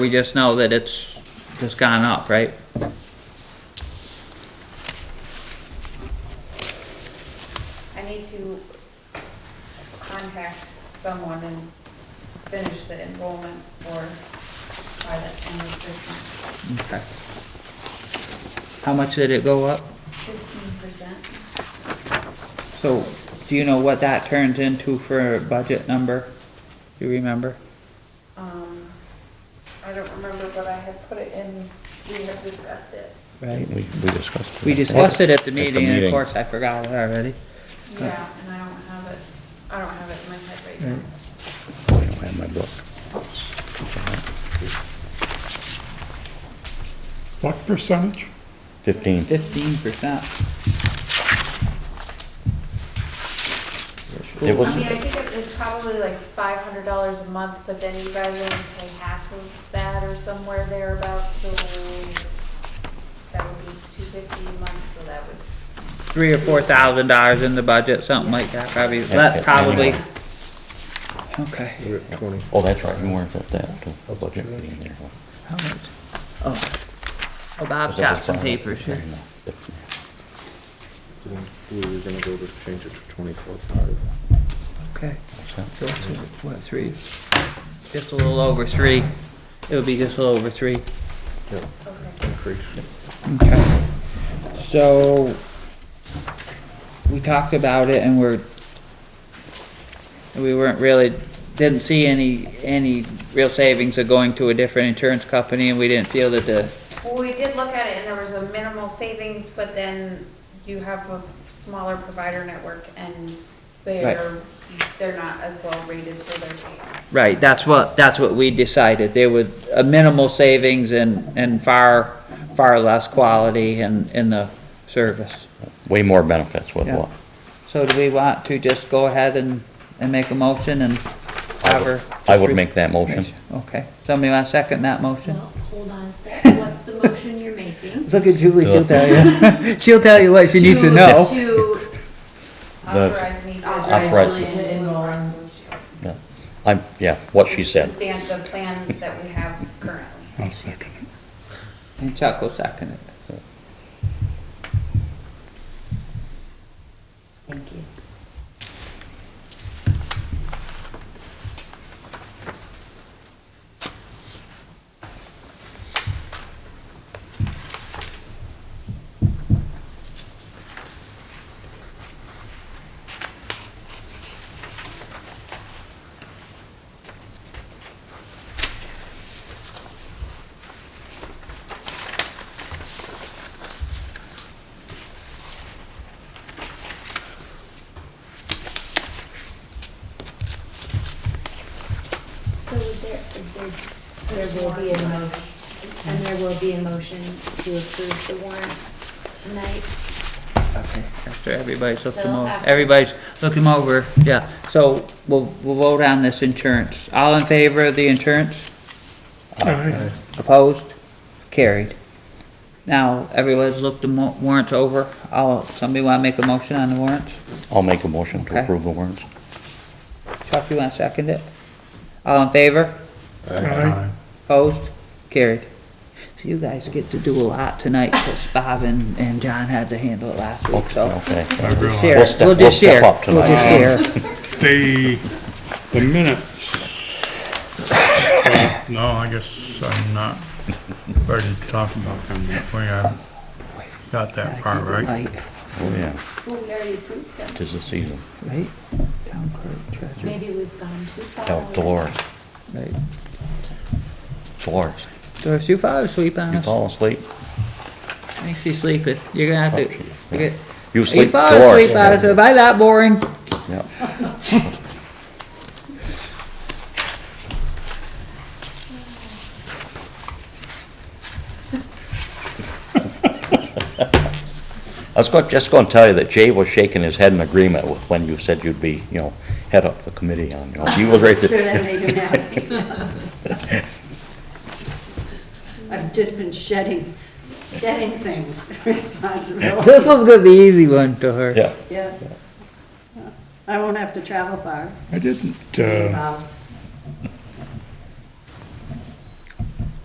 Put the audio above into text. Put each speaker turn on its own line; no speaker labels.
We just know that it's just gone up, right?
I need to contact someone and finish the enrollment for, by the end of this month.
Okay. How much did it go up?
Fifteen percent,
So, do you know what that turns into for a budget number? Do you remember?
um, I don't remember, but I had put it in, we had discussed it.
Right?
We, we discussed.
We discussed it at the
At the
meeting, and of
meeting.
course, I forgot it already.
Yeah, and I don't have it, I don't have it in my head right now.
I don't have my book.
What percentage?
Fifteen.
Fifteen percent.
It
I mean,
was,
I think it- it's probably like five hundred dollars a month, but then you guys only pay half of that or somewhere thereabouts, so that would be two fifty a month, so that would,
Three or four thousand dollars in the budget, something like that, probably, that probably. Okay.
We're at twenty.
oh, that's right, you weren't at that, too. the budget meeting there.
How much? Oh. Oh, Bob's got some papers here.
Then We were gonna go to change it to twenty-four five.
Okay. So it's, what, three? Just a little over three. It would be just a little over three.
Yeah,
okay.
increase.
Okay. So, we talked about it and we're, we weren't really, didn't see any, any real savings of going to a different insurance company and we didn't feel that the,
Well, we did look at it and there was a minimal savings, but then you have a smaller provider network and they're, they're not as well rated for their data.
right, that's what, that's what we decided. There was a minimal savings and, and far, far less quality in, in the service.
Way more benefits with
Yeah.
what?
So do we want to just go ahead and, and make a motion and have her?
I would make that motion.
Okay, somebody want to second that motion?
Well, hold on a sec, what's the motion you're making?
Look at Julie, she'll tell you. She'll tell you what she needs to know.
To
The-
Authorize me to.
Authorize
Julie to enroll.
Yeah. I'm, yeah, what she said.
Stand the plan that we have currently.
I'll second it.
And Chuck will second it.
Thank you. So is there, is there, there will be a motion, and there will be a motion to approve the warrants tonight?
Okay. After everybody's looked them
So
over,
after-
everybody's looked them over, yeah. So we'll, we'll vote on this insurance. All in favor of the insurance?
Aye.
Opposed? Carried. Now, everybody's looked the mo- warrants over. I'll, somebody want to make a motion on the warrants?
I'll make a motion
Okay.
to approve the warrants.
Chuck, you want to second it? All in favor?
Uh,
Aye.
Opposed? Carried. So you guys get to do a lot tonight, because Bob and, and John had to handle it last week, so.
Okay.
I
Share,
realize
We'll step-
we'll
we'll
just
step
share,
up
we'll just share.
they, the minutes. Well, No, I guess I'm not ready to talk about them yet. We haven't got that far, right?
Right,
Oh, yeah.
Well, we already approved them,
Tis the season.
right? Town clerk, treasurer,
maybe we've gone too far.
Tell Dolores,
right.
Dolores,
Doris, you fall asleep on
you
us?
fall asleep?
I think she's sleeping. You're gonna have to, you get,
Oh, You
you
sleep,
fall asleep on us.
Dolores.
Am I that boring?
Yeah. I was go- just going to tell you that Jay was shaking his head in agreement with when you said you'd be, you know, head up the committee on, you know, he was right
Sure,
there.
that made him happy. I've just been shedding, shedding things,
This
responsibility.
one's gonna be easy one to her.
Yeah,
Yeah. I won't have to travel far.
I didn't, uh,
Wow.